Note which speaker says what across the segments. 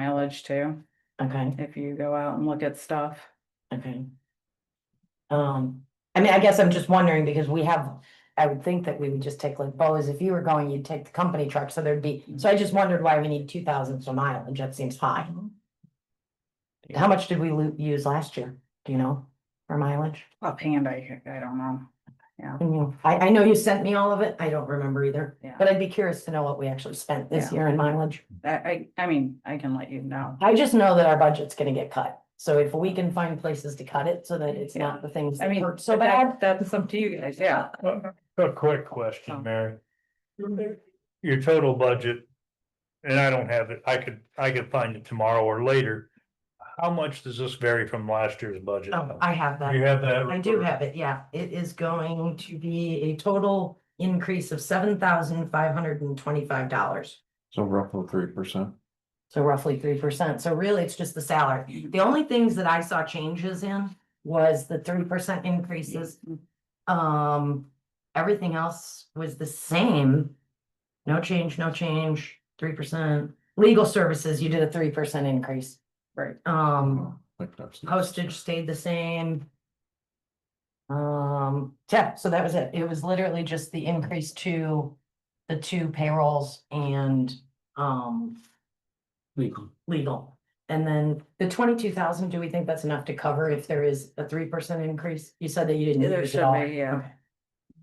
Speaker 1: mileage too,
Speaker 2: Okay,
Speaker 1: if you go out and look at stuff.
Speaker 2: okay. Um, I mean, I guess I'm just wondering because we have, I would think that we would just take like Bo's, if you were going, you'd take the company truck, so there'd be,
Speaker 1: Mm-hmm.
Speaker 2: so I just wondered why we need two thousand for mileage, that seems high. How much did we lo- use last year, do you know, for mileage?
Speaker 1: Offhand, I, I don't know.
Speaker 2: Can you- I, I know you sent me all of it, I don't remember either,
Speaker 1: Yeah.
Speaker 2: but I'd be curious to know what we actually spent this
Speaker 1: Yeah.
Speaker 2: year in mileage.
Speaker 1: I, I, I mean, I can let you know.
Speaker 2: I just know that our budget's gonna get cut, so if we can find places to cut it so that it's not the things
Speaker 1: I
Speaker 2: that
Speaker 1: mean,
Speaker 2: hurt
Speaker 1: so
Speaker 2: so bad.
Speaker 1: that's up to you guys, yeah.
Speaker 3: A quick
Speaker 1: Oh.
Speaker 3: question, Mary. Your total budget, and I don't have it, I could, I could find it tomorrow or later. How much does this vary from last year's budget?
Speaker 2: Oh, I have that.
Speaker 3: You have that?
Speaker 2: I do have it, yeah. It is going to be a total increase of seven thousand five hundred and twenty-five dollars.
Speaker 4: So roughly three percent.
Speaker 2: So roughly three percent. So really, it's just the salary. The only things that I saw changes in was the three percent increases. Um, everything else was the same. No change, no change, three percent. Legal services, you did a three percent increase.
Speaker 1: Right.
Speaker 2: Um,
Speaker 4: Like that's-
Speaker 2: Postage stayed the same. Um, yeah, so that was it. It was literally just the increase to the two payrolls and, um,
Speaker 5: Legal.
Speaker 2: legal. And then the twenty-two thousand, do we think that's enough to cover if there is a three percent increase? You said that you didn't.
Speaker 1: There
Speaker 2: use it
Speaker 1: should
Speaker 2: all.
Speaker 1: be, yeah.
Speaker 2: Okay.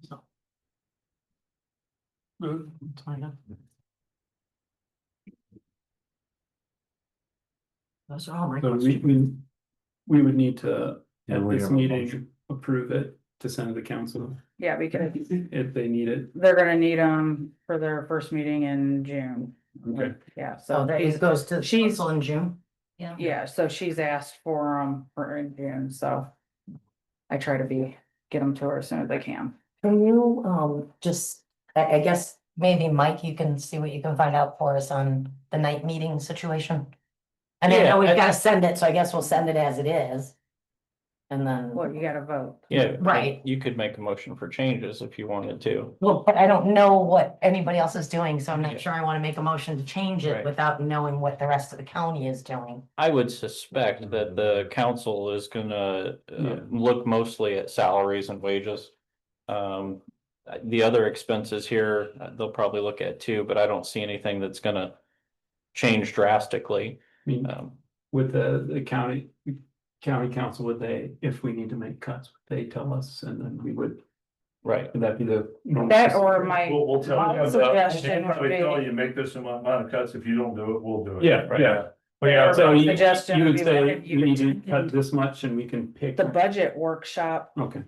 Speaker 2: So,
Speaker 5: Mm-hmm.
Speaker 2: that's all I got. Those are all my
Speaker 5: So we,
Speaker 2: questions.
Speaker 5: we, we would need to,
Speaker 4: Yeah,
Speaker 5: at
Speaker 4: we
Speaker 5: this
Speaker 4: have a
Speaker 5: meeting,
Speaker 4: motion.
Speaker 5: approve it to send to the council
Speaker 1: Yeah, because
Speaker 5: if they need it.
Speaker 1: they're gonna need them for their first meeting in June.
Speaker 5: Okay.
Speaker 1: Yeah,
Speaker 2: So
Speaker 1: so
Speaker 2: Oh, that
Speaker 1: she's,
Speaker 2: it goes to
Speaker 1: she's-
Speaker 2: council in June. Yeah.
Speaker 1: yeah, so she's asked for them for in June, so. I try to be, get them to her as soon as I can.
Speaker 2: Can you, um, just, I, I guess, maybe Mike, you can see what you can find out for us on the night meeting situation? And I
Speaker 3: Yeah,
Speaker 2: know we've
Speaker 3: I-
Speaker 2: gotta send it, so I guess we'll send it as it is. And then,
Speaker 1: Well, you gotta vote.
Speaker 6: Yeah. but
Speaker 2: Right.
Speaker 6: You could make a motion for changes if you wanted to.
Speaker 2: well, but I don't know what anybody else is doing, so I'm
Speaker 6: Yeah.
Speaker 2: not sure I wanna make a motion to change it
Speaker 6: Right.
Speaker 2: without knowing what the rest of the county is doing.
Speaker 6: I would suspect that the council is gonna uh,
Speaker 5: Yeah.
Speaker 6: look mostly at salaries and wages. Um, uh, the other expenses here, uh, they'll probably look at too, but I don't see anything that's gonna change drastically.
Speaker 5: I mean,
Speaker 6: Um,
Speaker 5: with the, the county, county council, would they, if we need to make cuts, they tell us and then we would,
Speaker 6: right.
Speaker 5: would that be the? normal
Speaker 1: That or
Speaker 5: procedure?
Speaker 1: my,
Speaker 7: We'll, we'll tell
Speaker 1: My
Speaker 7: you,
Speaker 1: suggestion
Speaker 7: they'll
Speaker 1: would
Speaker 7: probably
Speaker 1: be-
Speaker 7: tell you, make this amount of cuts, if you don't do it, we'll do it.
Speaker 5: Yeah,
Speaker 7: Right.
Speaker 5: yeah. Well, yeah, so you,
Speaker 1: Suggestion
Speaker 5: you
Speaker 1: would
Speaker 5: would
Speaker 1: be
Speaker 5: say,
Speaker 1: like, you
Speaker 5: you need to
Speaker 1: could-
Speaker 5: cut this much and we can pick.
Speaker 1: the budget workshop,
Speaker 5: Okay,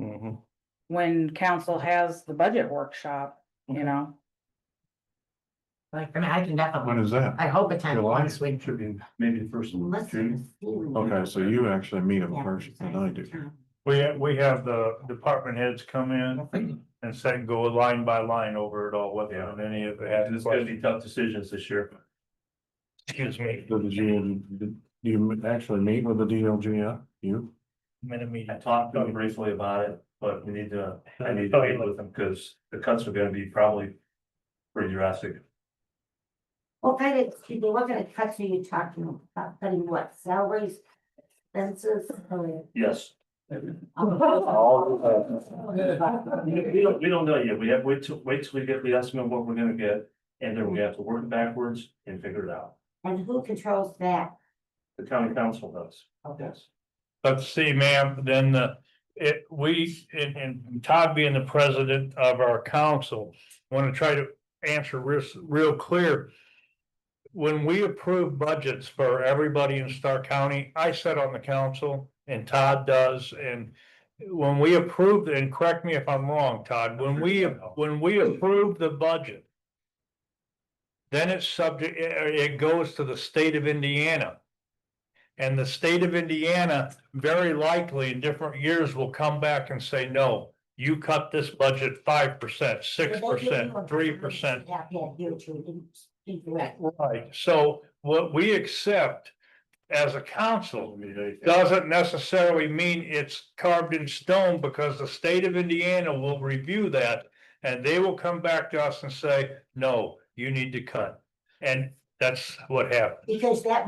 Speaker 6: Mhm.
Speaker 1: when council has the budget workshop, you know,
Speaker 2: Like, I mean, I can
Speaker 4: When
Speaker 2: definitely,
Speaker 4: is that?
Speaker 2: I hope attend
Speaker 4: July?
Speaker 2: once we.
Speaker 7: Should be maybe the first of June.
Speaker 4: Okay, so you actually meet them first than I do.
Speaker 3: We, ha- we have the department heads come in and say, go line by line over it all, whether on any of it has.
Speaker 7: And it's gonna be tough decisions this year.
Speaker 3: Excuse me,
Speaker 4: So did you, did you actually meet with the DLG, yeah? you?
Speaker 3: minute
Speaker 7: I
Speaker 3: meeting.
Speaker 7: talked to them briefly about it, but we need to, I need to meet with them, because the cuts are gonna be probably pretty drastic.
Speaker 8: What kind of, excuse me, what kind of cuts are you talking about, cutting what, salaries, expenses, or?
Speaker 7: Yes. All of that. We we don't, we don't know yet, we have, wait till, wait till we get the estimate of what we're gonna get, and then we have to work backwards and figure it out.
Speaker 8: And who controls that?
Speaker 7: The county council does. Yes.
Speaker 3: Let's see, ma'am, then the, it, we, and, and Todd being the president of our council, wanna try to answer real, real clear. When we approve budgets for everybody in Stark County, I sit on the council and Todd does, and when we approve, and correct me if I'm wrong, Todd, when we, when we approve the budget, then it's subject, it, it goes to the state of Indiana. And the state of Indiana very likely in different years will come back and say, no, you cut this budget five percent, six percent, three percent.
Speaker 8: Yeah, yeah, you're true, incorrect.
Speaker 3: Right, so what we accept as a council doesn't necessarily mean it's carved in stone because the state of Indiana will review that. And they will come back to us and say, no, you need to cut. And
Speaker 9: That's what happened.
Speaker 3: because that